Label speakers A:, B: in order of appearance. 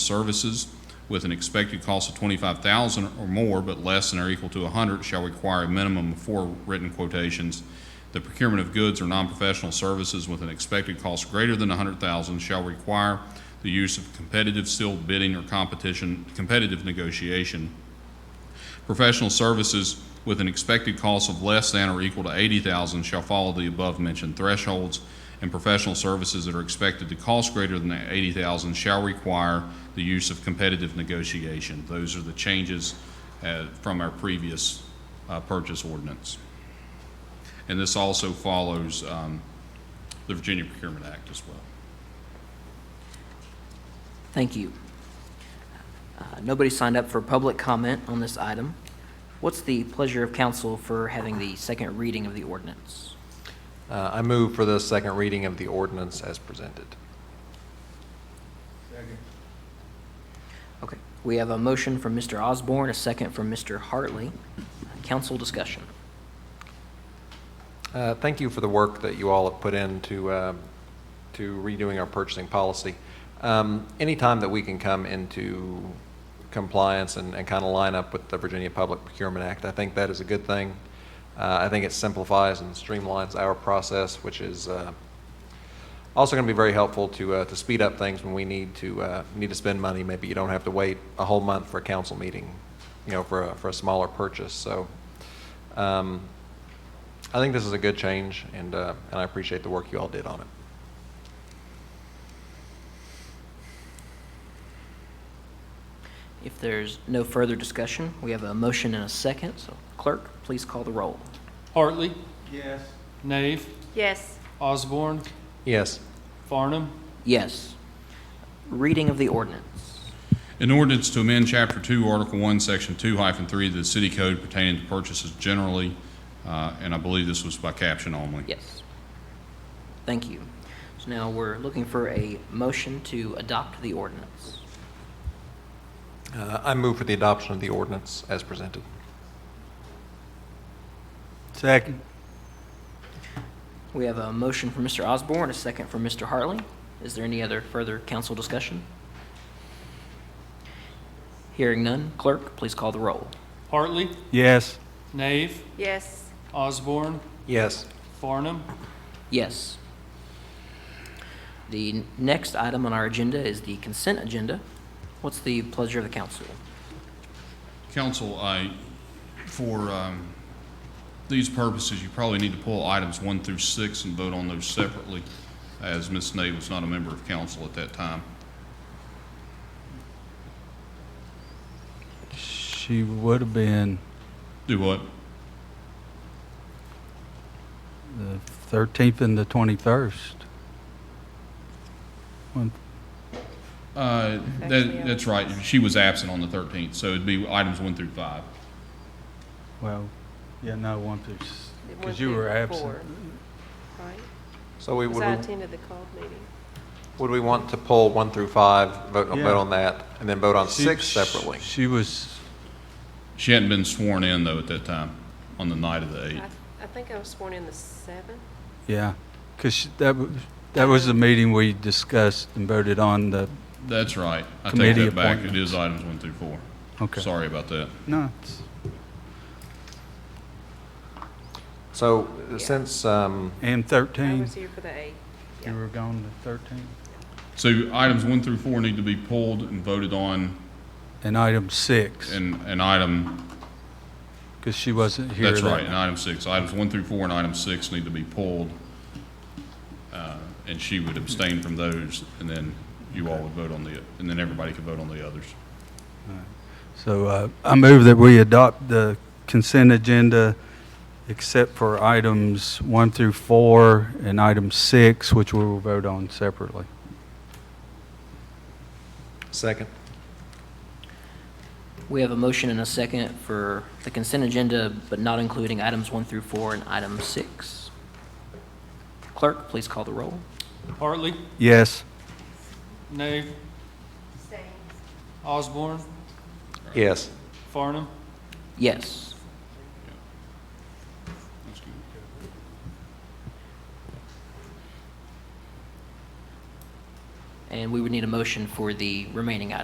A: services with an expected cost of twenty-five thousand or more, but less than or equal to a hundred, shall require a minimum of four written quotations. The procurement of goods or non-professional services with an expected cost greater than a hundred thousand shall require the use of competitive seal bidding or competition, competitive negotiation. Professional services with an expected cost of less than or equal to eighty thousand shall follow the above-mentioned thresholds, and professional services that are expected to cost greater than eighty thousand shall require the use of competitive negotiation. Those are the changes uh, from our previous uh, purchase ordinance. And this also follows um, the Virginia Procurement Act as well.
B: Thank you. Uh, Nobody signed up for public comment on this item. What's the pleasure of council for having the second reading of the ordinance?
C: Uh, I move for the second reading of the ordinance as presented.
B: Okay, we have a motion from Mr. Osborne, a second from Mr. Hartley. Council discussion.
C: Uh, Thank you for the work that you all have put into um, to redoing our purchasing policy. Um, Anytime that we can come into compliance and kind of line up with the Virginia Public Procurement Act, I think that is a good thing. Uh, I think it simplifies and streamlines our process, which is uh, also going to be very helpful to uh, to speed up things when we need to uh, need to spend money. Maybe you don't have to wait a whole month for a council meeting, you know, for a, for a smaller purchase. So um, I think this is a good change, and, uh, and I appreciate the work you all did on it.
B: If there's no further discussion, we have a motion and a second, so clerk, please call the roll.
D: Hartley,
E: Yes.
D: Nave,
F: Yes,
D: Osborne,
C: Yes,
D: Farnham,
B: Yes. Reading of the ordinance.
A: An ordinance to amend Chapter 2, Article 1, Section 2 hyphen 3 of the city code pertaining to purchases generally, uh, and I believe this was by caption only.
B: Yes. Thank you. So now we're looking for a motion to adopt the ordinance.
C: uh, I move for the adoption of the ordinance as presented.
E: Second.
B: We have a motion from Mr. Osborne, a second from Mr. Hartley. Is there any other further council discussion? Hearing none, clerk, please call the roll.
D: Hartley,
E: Yes.
D: Nave,
F: yes,
D: Osborne,
C: Yes,
D: Farnham,
B: Yes. The n- next item on our agenda is the consent agenda. What's the pleasure of the council?
A: Council, I, for um, these purposes, you probably need to pull items 1 through 6 and vote on those separately, as Ms. Nave was not a member of council at that time.
E: She would have been
A: Do what?
E: the thirteenth and the twenty-first.
A: Uh,
F: Actually, I
A: That, that's right, she was absent on the 13th, so it'd be items 1 through 5.
E: Well, yeah, no, one through, s-
F: It
E: cause
F: went
E: you
F: through
E: were absent.
F: four. right?
C: so we,
F: Because
C: would,
F: I
C: we-
F: attended the called meeting.
C: would we want to pull one through five, vote,
E: Yeah.
C: vote on that, and then vote on
E: She-
C: six
E: sh-
C: separately?
E: She was,
A: She hadn't been sworn in, though, at that time, on the night of the 8th.
F: I, I think I was sworn in the seventh.
E: yeah, cause she- that was, that was the meeting we discussed and voted on the,
A: That's right. I take
E: Committee
A: that back. It
E: appointments.
A: is items one through four.
E: okay.
A: Sorry about that.
E: No, it's-
C: So
F: Yeah.
C: since, um,
E: and
F: I
E: thirteen,
F: was here for the eighth.
E: you were gone the thirteenth.
A: So items one through four need to be pulled and voted on,
E: And item six,
A: and, and item,
E: cause she wasn't here.
A: that's
E: that
A: right,
E: night.
A: and item six. Items one through four and item six need to be pulled, uh, and she would abstain from those, and then you all would vote on the, and then everybody could vote on the others.
E: So uh, I move that we adopt the consent agenda except for items one through four and item six, which we will vote on separately.
C: second,
B: We have a motion and a second for the consent agenda, but not including items one through four and item six. Clerk, please call the roll.
D: Hartley,
E: Yes.
D: Nave, Osborne,
C: yes,
D: Farnham,
B: Yes. And we would need a motion for the remaining items.